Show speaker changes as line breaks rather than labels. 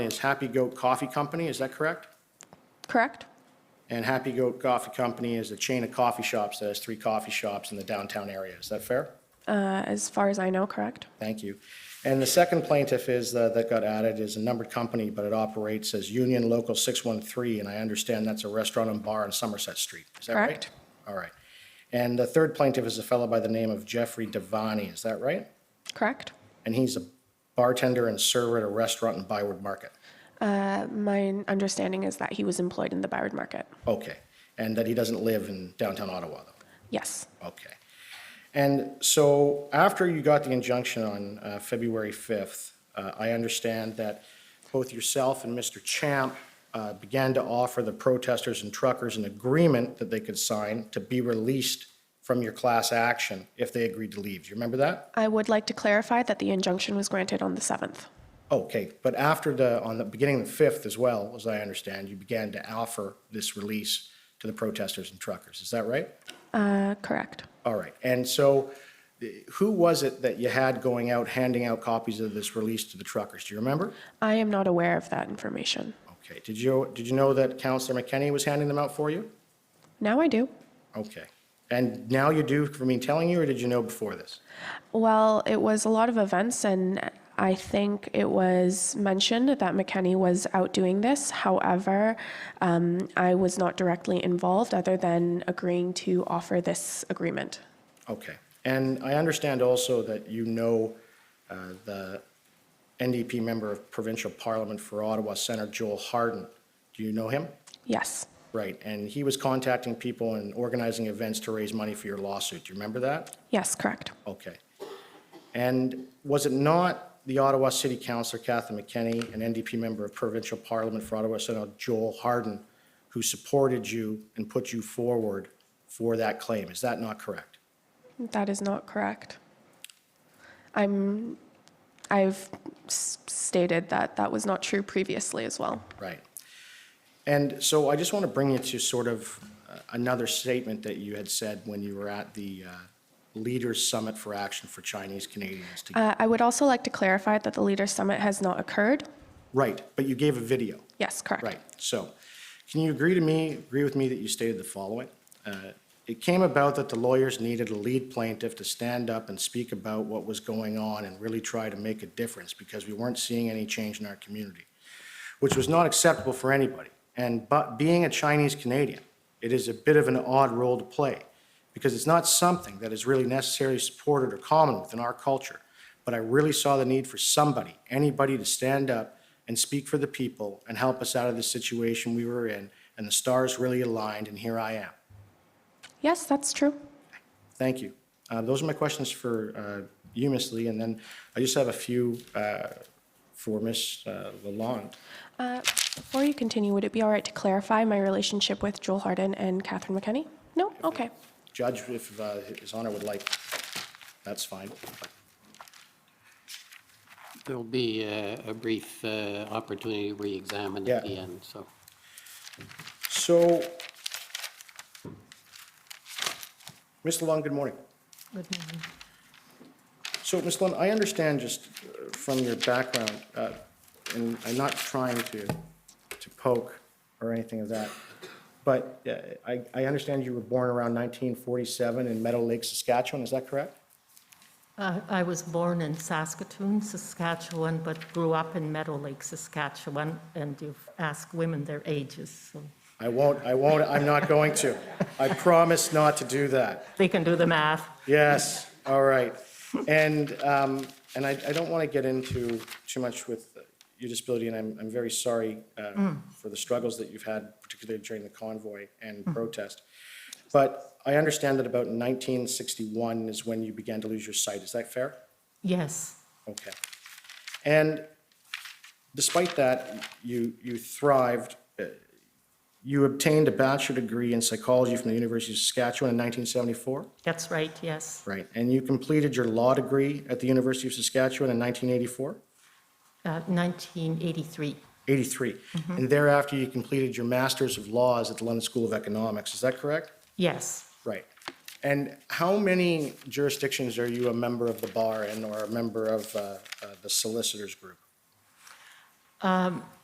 It's Happy Goat Coffee Company, is that correct?
correct?
And Happy Goat Coffee Company is a chain of coffee shops that has three coffee shops in the downtown area. Is that fair?
Uh, As far as I know, correct?
Thank you. And the second plaintiff is, uh, that got added, is a numbered company, but it operates as Union Local 613, and I understand that's a restaurant and bar on Somerset Street. Is that right?
Correct.
All right. And the third plaintiff is a fellow by the name of Jeffrey Devaney, is that right?
Correct?
And he's a bartender and server at a restaurant in Byward Market.
Uh, My understanding is that he was employed in the Byward Market.
Okay. And that he doesn't live in downtown Ottawa, though?
Yes,
Okay. And so after you got the injunction on uh, February 5th, uh, I understand that both yourself and Mr. Champ uh, began to offer the protesters and truckers an agreement that they could sign to be released from your class action if they agreed to leave. Do you remember that?
I would like to clarify that the injunction was granted on the 7th.
Okay, but after the, on the beginning of the 5th as well, as I understand, you began to offer this release to the protesters and truckers. Is that right?
Uh, Correct.
All right, and so the- who was it that you had going out handing out copies of this release to the truckers? Do you remember?
I am not aware of that information.
Okay, did you, did you know that Counselor McKenney was handing them out for you?
Now I do.
Okay, and now you do for me telling you, or did you know before this?
Well, it was a lot of events, and I think it was mentioned that McKenny was out doing this. However, um, I was not directly involved other than agreeing to offer this agreement.
Okay, and I understand also that you know uh, the NDP member of Provincial Parliament for Ottawa, Senator Joel Harden. Do you know him?
Yes,
Right, and he was contacting people and organizing events to raise money for your lawsuit. Do you remember that?
yes, correct.
Okay. And was it not the Ottawa City Councillor Kathy McKenney, an NDP member of provincial parliament for Ottawa Senator Joel Harden, who supported you and put you forward for that claim? Is that not correct?
That is not correct. I'm, I've s- stated that that was not true previously as well.
Right. And so I just want to bring you to sort of uh, another statement that you had said when you were at the uh, Leaders Summit for Action for Chinese Canadians. to-
Uh, I would also like to clarify that the Leaders Summit has not occurred.
Right, but you gave a video.
Yes, correct.
Right, so, can you agree to me, agree with me that you stated the following? Uh, It came about that the lawyers needed a lead plaintiff to stand up and speak about what was going on and really try to make a difference because we weren't seeing any change in our community, which was not acceptable for anybody. And, but being a Chinese Canadian, it is a bit of an odd role to play because it's not something that is really necessarily supported or common within our culture. But I really saw the need for somebody, anybody to stand up and speak for the people and help us out of the situation we were in. And the stars really aligned, and here I am.
Yes, that's true.
Thank you. Uh, those are my questions for uh, you, Ms. Lee. And then I just have a few uh, for Ms. Uh, Lalonde.
Before you continue, would it be all right to clarify my relationship with Joel Harden and Catherine McKenney? No? Okay.
Judge, if uh, His Honor would like, that's fine.
There'll be uh, a brief uh, opportunity to re-examine
Yeah.
at the end, so.
So, Ms. Lalonde, good morning.
Good morning.
So, Ms. Lund, I understand just uh, from your background, uh, and I'm not trying to, to poke or anything of that, but uh, I, I understand you were born around 1947 in Meadow Lake, Saskatchewan, is that correct?
I Uh, I was born in Saskatoon, Saskatchewan, but grew up in Meadow Lake, Saskatchewan, and you've asked women their ages, so
I won't, I won't, I'm not going to. I promise not to do that.
they can do the math.
Yes, all right. And, um, and I, I don't want to get into too much with your disability, and I'm, I'm very sorry uh, for the struggles that you've had, particularly during the convoy and protest. But I understand that about 1961 is when you began to lose your sight. Is that fair?
Yes,
Okay. And despite that, you, you thrived. Uh, You obtained a bachelor degree in psychology from the University of Saskatchewan in 1974?
that's right, yes.
Right, and you completed your law degree at the University of Saskatchewan in 1984?
Uh, 1983,
83. And thereafter, you completed your Masters of Laws at the London School of Economics, is that correct?
yes.
Right. And how many jurisdictions are you a member of the bar in or a member of uh, uh, the solicitors group?